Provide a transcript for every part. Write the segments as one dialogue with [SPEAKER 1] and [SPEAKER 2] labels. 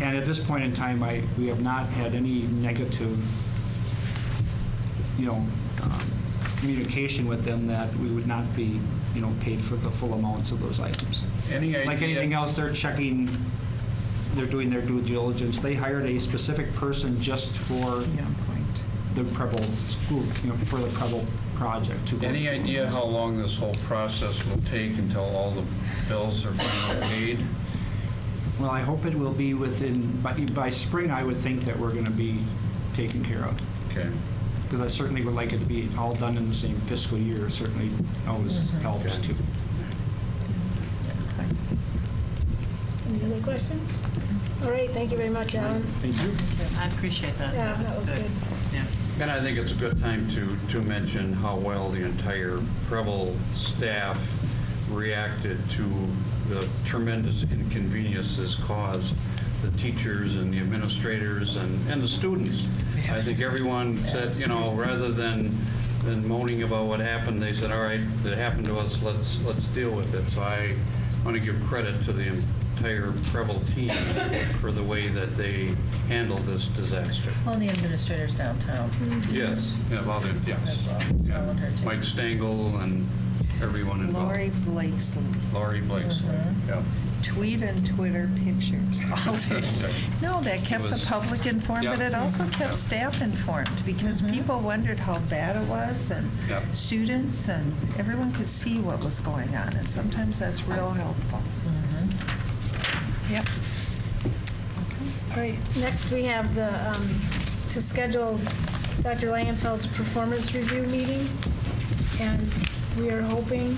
[SPEAKER 1] And at this point in time, I, we have not had any negative, you know, um, communication with them that we would not be, you know, paid for the full amounts of those items.
[SPEAKER 2] Any
[SPEAKER 1] Like
[SPEAKER 2] idea-
[SPEAKER 1] anything else, they're checking, they're doing their due diligence. They hired a specific person just for the Preble school, you know, for the Preble project to go
[SPEAKER 2] Any
[SPEAKER 1] through.
[SPEAKER 2] idea how long this whole process will take until all the bills are finally paid?
[SPEAKER 1] Well, I hope it will be within, by, by spring, I would think that we're going to be taken care of.
[SPEAKER 2] Okay.
[SPEAKER 1] Because I certainly would like it to be all done in the same fiscal year, certainly always helps too.
[SPEAKER 3] Any other questions? All right, thank you very much, Alan.
[SPEAKER 1] Thank you.
[SPEAKER 4] I appreciate that.
[SPEAKER 3] Yeah, that was good.
[SPEAKER 4] Yeah.
[SPEAKER 2] And I think it's a good time to, to mention how well the entire Preble staff reacted to the tremendous inconvenience this caused, the teachers and the administrators and, and the students. I think everyone said, you know, rather than, than moaning about what happened, they said, all right, it happened to us, let's, let's deal with it. So I want to give credit to the entire Preble team for the way that they handled this disaster.
[SPEAKER 5] Well, the administrators
[SPEAKER 3] Mm-hmm.
[SPEAKER 5] downtown
[SPEAKER 2] Yes, yeah, well, there-
[SPEAKER 5] as
[SPEAKER 2] yes.
[SPEAKER 5] well.
[SPEAKER 2] Yeah.
[SPEAKER 5] I want her to-
[SPEAKER 2] Mike Stengel and everyone
[SPEAKER 6] Lori
[SPEAKER 2] involved.
[SPEAKER 6] Blakesley,
[SPEAKER 2] Lori Blakesley, yeah.
[SPEAKER 6] tweet and Twitter pictures all day. No, that kept the
[SPEAKER 2] was-
[SPEAKER 6] public informed, but
[SPEAKER 2] Yep.
[SPEAKER 6] it also
[SPEAKER 2] Yep.
[SPEAKER 6] kept staff informed because
[SPEAKER 3] Mm-hmm.
[SPEAKER 6] people wondered how bad it was and
[SPEAKER 2] Yep.
[SPEAKER 6] students and everyone could see what was going on and sometimes that's real helpful.
[SPEAKER 3] Mm-hmm.
[SPEAKER 6] Yep.
[SPEAKER 3] All right, next we have the, um, to schedule Dr. Langenfeld's performance review meeting, and we are hoping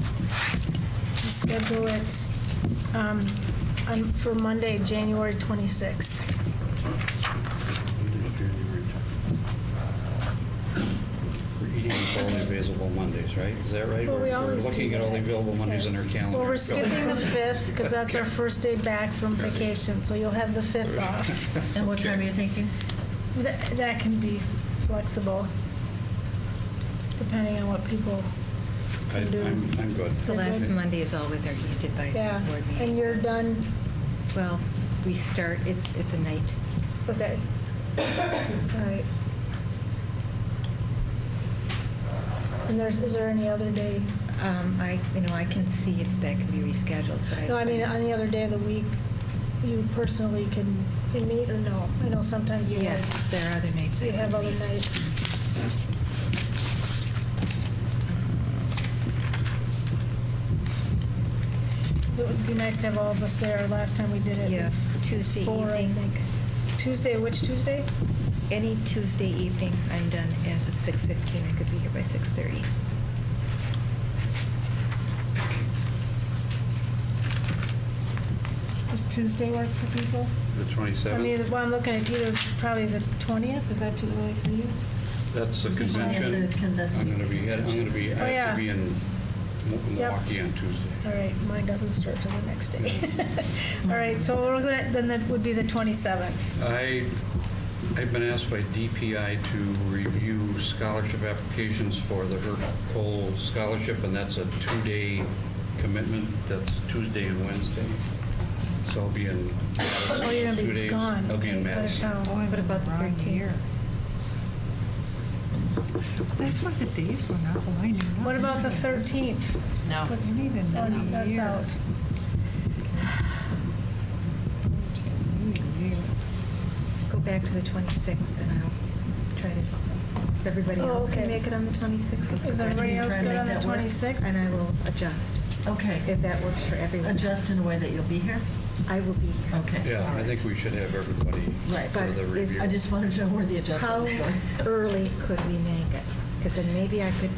[SPEAKER 3] to schedule it um, on- for Monday, January 26th.
[SPEAKER 2] We're eating with only available Mondays, right? Is that right?
[SPEAKER 3] Well, we
[SPEAKER 2] We're-
[SPEAKER 3] always
[SPEAKER 2] We're looking
[SPEAKER 3] do
[SPEAKER 2] at only
[SPEAKER 3] that.
[SPEAKER 2] available Mondays in
[SPEAKER 3] Yes.
[SPEAKER 2] their calendar.
[SPEAKER 3] Well,
[SPEAKER 2] Go.
[SPEAKER 3] we're skipping the 5th, because that's our first day back from vacation, so you'll have the 5th off.
[SPEAKER 5] And what time are you thinking?
[SPEAKER 3] That that can be flexible, depending on what people
[SPEAKER 2] I-
[SPEAKER 3] can do.
[SPEAKER 2] I'm, I'm good.
[SPEAKER 4] The last
[SPEAKER 3] Okay.
[SPEAKER 4] Monday is always our East
[SPEAKER 3] Yeah,
[SPEAKER 4] Advisory Board
[SPEAKER 3] and
[SPEAKER 4] meeting.
[SPEAKER 3] you're done,
[SPEAKER 4] Well, we start, it's, it's a night.
[SPEAKER 3] okay. All right. And there's, is there any other day?
[SPEAKER 4] Um, I, you know, I can see if that can be rescheduled, but I.
[SPEAKER 3] No, I mean, any other day of the week, you personally can, can meet or no? I know sometimes you
[SPEAKER 4] Yes,
[SPEAKER 3] have,
[SPEAKER 4] there are other nights. I
[SPEAKER 3] you have
[SPEAKER 4] can
[SPEAKER 3] other
[SPEAKER 4] meet.
[SPEAKER 3] nights. So it would be nice to have all of us there. Last time we did it.
[SPEAKER 4] Yeah,
[SPEAKER 3] with
[SPEAKER 4] Tuesday
[SPEAKER 3] Four, I
[SPEAKER 4] evening.
[SPEAKER 3] think. Tuesday, which Tuesday?
[SPEAKER 4] Any Tuesday evening, I'm done as of 6:15. I could be here by 6:30.
[SPEAKER 3] Does Tuesday work for people?
[SPEAKER 2] The
[SPEAKER 3] I mean,
[SPEAKER 2] 27th,
[SPEAKER 3] well, I'm looking at either, probably the 20th, is that too early for you?
[SPEAKER 2] that's the
[SPEAKER 5] Yeah,
[SPEAKER 2] convention.
[SPEAKER 5] the- can- that's-
[SPEAKER 2] I'm going to be, head- I'm going to be, I
[SPEAKER 3] Oh,
[SPEAKER 2] have
[SPEAKER 3] yeah.
[SPEAKER 2] to be in Mo-
[SPEAKER 3] Yep.
[SPEAKER 2] Milwaukee on Tuesday.
[SPEAKER 3] All right, mine doesn't start till the next day. All right, so we're looking at, then that would be the 27th.
[SPEAKER 2] I, I've been asked by DPI to review scholarship applications for the Herb Cole Scholarship, and that's a two-day commitment. That's Tuesday and Wednesday. So I'll be in,
[SPEAKER 3] Oh, you're
[SPEAKER 2] Two
[SPEAKER 3] gonna be
[SPEAKER 2] days.
[SPEAKER 3] gone.
[SPEAKER 2] I'll be in
[SPEAKER 3] Out of
[SPEAKER 2] Madison.
[SPEAKER 5] Oh,
[SPEAKER 3] town.
[SPEAKER 6] What about the year? That's why the days were not lining up.
[SPEAKER 3] What about the 13th?
[SPEAKER 5] No.
[SPEAKER 3] What's-
[SPEAKER 6] You need
[SPEAKER 3] That's
[SPEAKER 6] another year.
[SPEAKER 3] out.
[SPEAKER 6] You need a year.
[SPEAKER 4] Go back to the 26th and I'll try to, if everybody
[SPEAKER 3] Oh,
[SPEAKER 4] else can
[SPEAKER 3] okay.
[SPEAKER 4] make it on the 26th. let's go
[SPEAKER 3] Is
[SPEAKER 4] back to the
[SPEAKER 3] everybody else
[SPEAKER 5] try
[SPEAKER 3] good
[SPEAKER 5] and
[SPEAKER 3] on the
[SPEAKER 5] make that work?
[SPEAKER 3] 26th?
[SPEAKER 4] And I will adjust,
[SPEAKER 5] Okay.
[SPEAKER 4] if that works for everyone.
[SPEAKER 5] Adjust in a way that you'll be here?
[SPEAKER 4] I will be here.
[SPEAKER 5] Okay.
[SPEAKER 2] yeah, I think we should have everybody
[SPEAKER 5] Right,
[SPEAKER 2] for
[SPEAKER 4] but
[SPEAKER 2] the
[SPEAKER 4] is-
[SPEAKER 2] review.
[SPEAKER 5] I just wanted to know where the
[SPEAKER 4] How
[SPEAKER 5] adjustment is going.
[SPEAKER 4] early could we make it? Because then maybe I could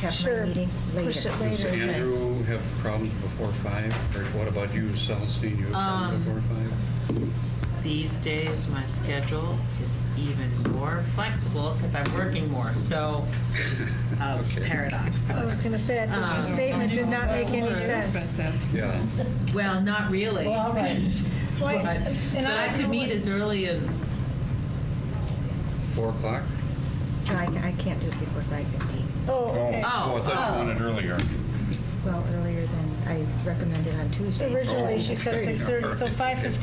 [SPEAKER 4] have my
[SPEAKER 3] Sure,
[SPEAKER 4] meeting
[SPEAKER 3] push
[SPEAKER 4] later.
[SPEAKER 3] it
[SPEAKER 2] Does
[SPEAKER 3] later.
[SPEAKER 2] Andrew have problems before five? Or what about you, Celestine? You have problems
[SPEAKER 7] Um,
[SPEAKER 2] before five?
[SPEAKER 7] These days, my schedule is even more flexible because I'm working more, so it's a
[SPEAKER 2] Okay.
[SPEAKER 7] paradox.
[SPEAKER 3] I was gonna say, that the
[SPEAKER 7] Um,
[SPEAKER 3] statement did not make any sense.
[SPEAKER 6] That's
[SPEAKER 2] Yeah.
[SPEAKER 7] Well, not really.
[SPEAKER 5] Well, all right.
[SPEAKER 3] Why-
[SPEAKER 7] But
[SPEAKER 3] and
[SPEAKER 7] but I could meet as early as,
[SPEAKER 2] Four o'clock?
[SPEAKER 4] No, I ca- I can't do it before 5:15.
[SPEAKER 3] Oh, okay.
[SPEAKER 2] Oh, I thought you wanted earlier.
[SPEAKER 4] Well, earlier than I recommended on Tuesday.
[SPEAKER 3] Originally, she said 6:30, so 5:15